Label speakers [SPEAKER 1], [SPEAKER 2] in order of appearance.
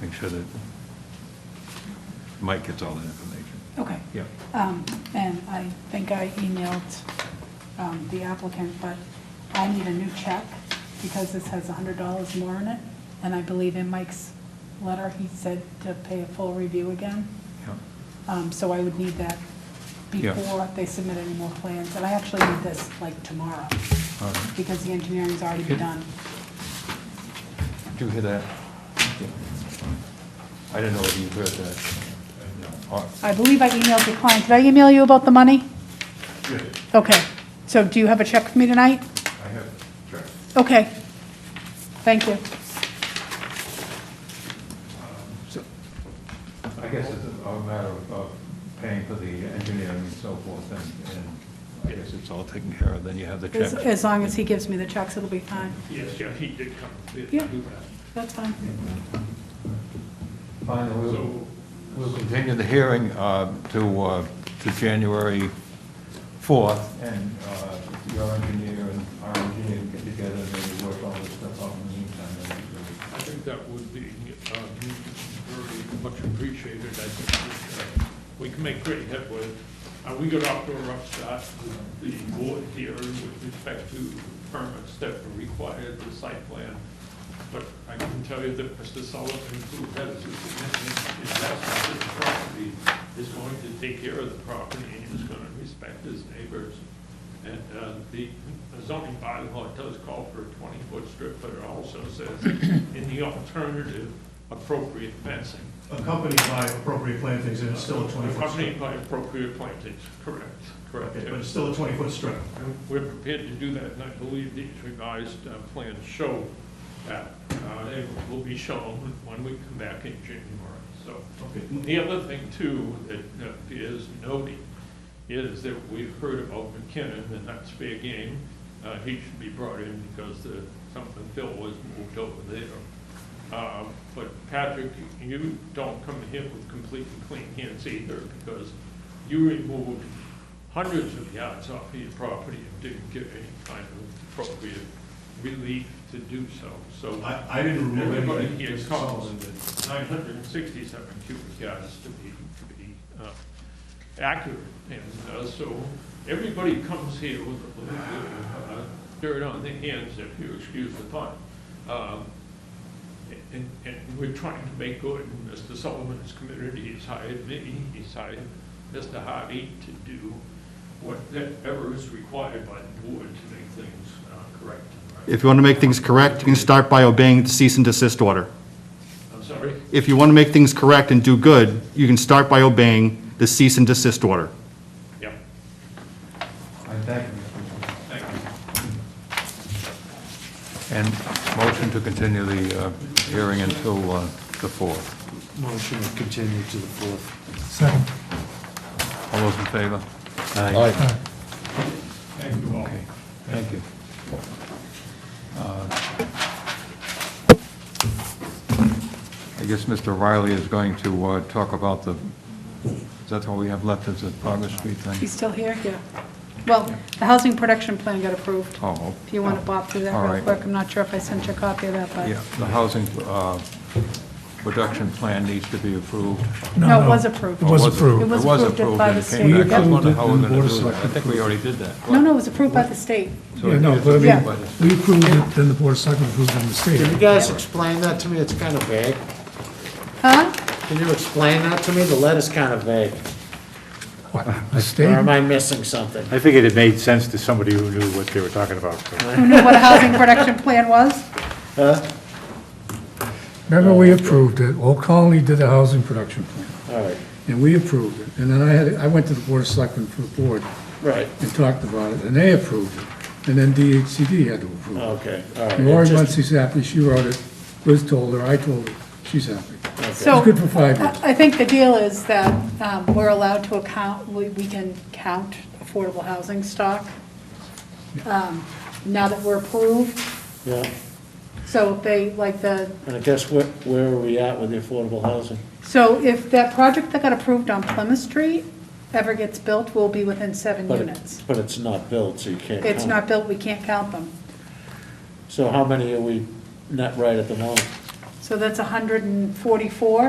[SPEAKER 1] Make sure that Mike gets all that information.
[SPEAKER 2] Okay.
[SPEAKER 1] Yeah.
[SPEAKER 2] Um, And I think I emailed um, the applicant, but I need a new check because this has $100 more in it. And I believe in Mike's letter, he said to pay a full review again.
[SPEAKER 1] Yeah.
[SPEAKER 2] Um, So I would need that
[SPEAKER 1] Yeah.
[SPEAKER 2] before they submit any more plans. And I actually need this like tomorrow
[SPEAKER 1] All right.
[SPEAKER 2] because the engineering's already been
[SPEAKER 1] Okay.
[SPEAKER 2] done.
[SPEAKER 1] Did you hear that? I didn't know whether you heard that. Oh,
[SPEAKER 2] I believe I emailed the client. Did I email you about the money? Okay. So do you have a check for me tonight?
[SPEAKER 1] I have, sure.
[SPEAKER 2] Okay. Thank you.
[SPEAKER 1] So, I guess it's a matter of- of paying for the engineering and so forth, and, and I guess it's all taken care of, then you have the
[SPEAKER 2] As,
[SPEAKER 1] check.
[SPEAKER 2] as long as he gives me the checks, it'll be fine.
[SPEAKER 3] Yes, yeah, he did come, did
[SPEAKER 2] Yeah.
[SPEAKER 3] do that.
[SPEAKER 2] That's fine.
[SPEAKER 1] Fine, we'll,
[SPEAKER 3] So-
[SPEAKER 1] we'll continue the hearing uh, to, uh, to January 4th, and uh, if your engineer and our engineer get together, and maybe work all this stuff out in the meantime. that'd be great.
[SPEAKER 3] I think that would be uh, very much appreciated. I think that, uh, we can make great headway. Uh, We got off to a rough start with the board here with respect to permits that require the site plan. But I can tell you that Mr. Sullivan, who has a significant investment in the property, is going to take care of the property and is going to respect his neighbors. And uh, the zoning bylaw does call for a 20-foot strip, but it also says, in the alternative, appropriate fencing.
[SPEAKER 4] accompanied by appropriate plantings, and it's still a 20-foot strip.
[SPEAKER 3] Accompanied by appropriate plantings, correct, correct.
[SPEAKER 4] Okay, But it's still a 20-foot strip.
[SPEAKER 3] And We're prepared to do that, and I believe these revised uh, plans show that. Uh, They will be shown when we come back in January, so.
[SPEAKER 4] Okay.
[SPEAKER 3] The other thing too that uh, is noting is that we've heard about McKinnon and that's fair game. Uh, he should be brought in because the, something Phil was moved over there. Uh, but Patrick, you don't come here with completely clean hands either because you removed hundreds of yards off of your property and didn't give any kind of appropriate relief to do so. So
[SPEAKER 4] I, I didn't remove
[SPEAKER 3] Everybody
[SPEAKER 4] anything.
[SPEAKER 3] here
[SPEAKER 4] Mr.
[SPEAKER 3] comes.
[SPEAKER 4] Sullivan did.
[SPEAKER 3] 967 cubic yards to be, to be uh, accurate. And uh, so everybody comes here with a little bit of uh, dirt on their hands, if you excuse the pun. Um, And, and we're trying to make good, and Mr. Sullivan's community has hired me, he's hired Mr. Hardy to do whatever is required by the board to make things uh, correct and right.
[SPEAKER 5] If you want to make things correct, you can start by obeying the cease and desist order.
[SPEAKER 3] I'm sorry?
[SPEAKER 5] If you want to make things correct and do good, you can start by obeying the cease and desist order.
[SPEAKER 3] Yeah,
[SPEAKER 1] I thank you, Mr. Chairman.
[SPEAKER 3] thank you.
[SPEAKER 1] And motion to continue the uh, hearing until uh, the 4th.
[SPEAKER 6] Motion to continue to the fourth.
[SPEAKER 1] All those in favor?
[SPEAKER 5] Aye.
[SPEAKER 3] Thank you all.
[SPEAKER 1] Okay, thank you. Uh, I guess Mr. Riley is going to uh, talk about the, is that all we have left is the Progress Street thing?
[SPEAKER 2] He's still here? Yeah. Well, the housing production plan got approved.
[SPEAKER 1] Oh.
[SPEAKER 2] If you want to bop through
[SPEAKER 1] All
[SPEAKER 2] that real
[SPEAKER 1] right.
[SPEAKER 2] quick. I'm not sure if I sent you a copy of that, but.
[SPEAKER 1] Yeah, the housing uh, production plan needs to be approved.
[SPEAKER 2] No, it was approved.
[SPEAKER 7] It was approved.
[SPEAKER 2] It was approved by the
[SPEAKER 1] and it came back. I
[SPEAKER 2] state.
[SPEAKER 1] just
[SPEAKER 7] We approved
[SPEAKER 1] wondered
[SPEAKER 7] it
[SPEAKER 1] how
[SPEAKER 7] in
[SPEAKER 1] we're
[SPEAKER 7] the
[SPEAKER 1] gonna
[SPEAKER 7] Board of
[SPEAKER 1] do that. I
[SPEAKER 7] Selectmen.
[SPEAKER 1] think we already did that.
[SPEAKER 2] No, no, it was approved by the state.
[SPEAKER 1] So
[SPEAKER 7] Yeah, no,
[SPEAKER 1] it's
[SPEAKER 7] but I
[SPEAKER 2] Yeah.
[SPEAKER 1] by the
[SPEAKER 7] mean, we approved it, then the Board of Selectmen approved it on the
[SPEAKER 6] Can you
[SPEAKER 7] state.
[SPEAKER 6] guys explain that to me? It's kind of vague.
[SPEAKER 2] Huh?
[SPEAKER 6] Can you explain that to me? The letter's kind of vague.
[SPEAKER 7] What, The
[SPEAKER 6] Or
[SPEAKER 7] state?
[SPEAKER 6] am I missing something?
[SPEAKER 8] I figured it made sense to somebody who knew what they were talking about.
[SPEAKER 2] Who knew what a housing production plan was?
[SPEAKER 7] Remember, we approved it, Old Colony did the housing production plan,
[SPEAKER 6] All right,
[SPEAKER 7] and we approved it. And then I had, I went to the Board of Selectmen for the board
[SPEAKER 6] right,
[SPEAKER 7] and talked about it, and they approved it. And then DHCD had to approve it.
[SPEAKER 6] okay, all right.
[SPEAKER 7] Lori
[SPEAKER 6] It just-
[SPEAKER 7] Muncie's happy, she wrote it, Liz told her, I told her, she's happy.
[SPEAKER 2] So.
[SPEAKER 7] It's good for five years.
[SPEAKER 2] I I think the deal is that um, we're allowed to account, we we can count affordable housing stock um, now that we're approved.
[SPEAKER 6] Yeah,
[SPEAKER 2] So if they, like the,
[SPEAKER 6] and I guess where, where are we at with the affordable housing?
[SPEAKER 2] so if that project that got approved on Plymouth Street ever gets built, we'll be within seven
[SPEAKER 6] But it-
[SPEAKER 2] units.
[SPEAKER 6] But it's not built, so you can't.
[SPEAKER 2] It's
[SPEAKER 6] count.
[SPEAKER 2] not built, we can't count them.
[SPEAKER 6] So how many are we net right at the moment?
[SPEAKER 2] So that's 144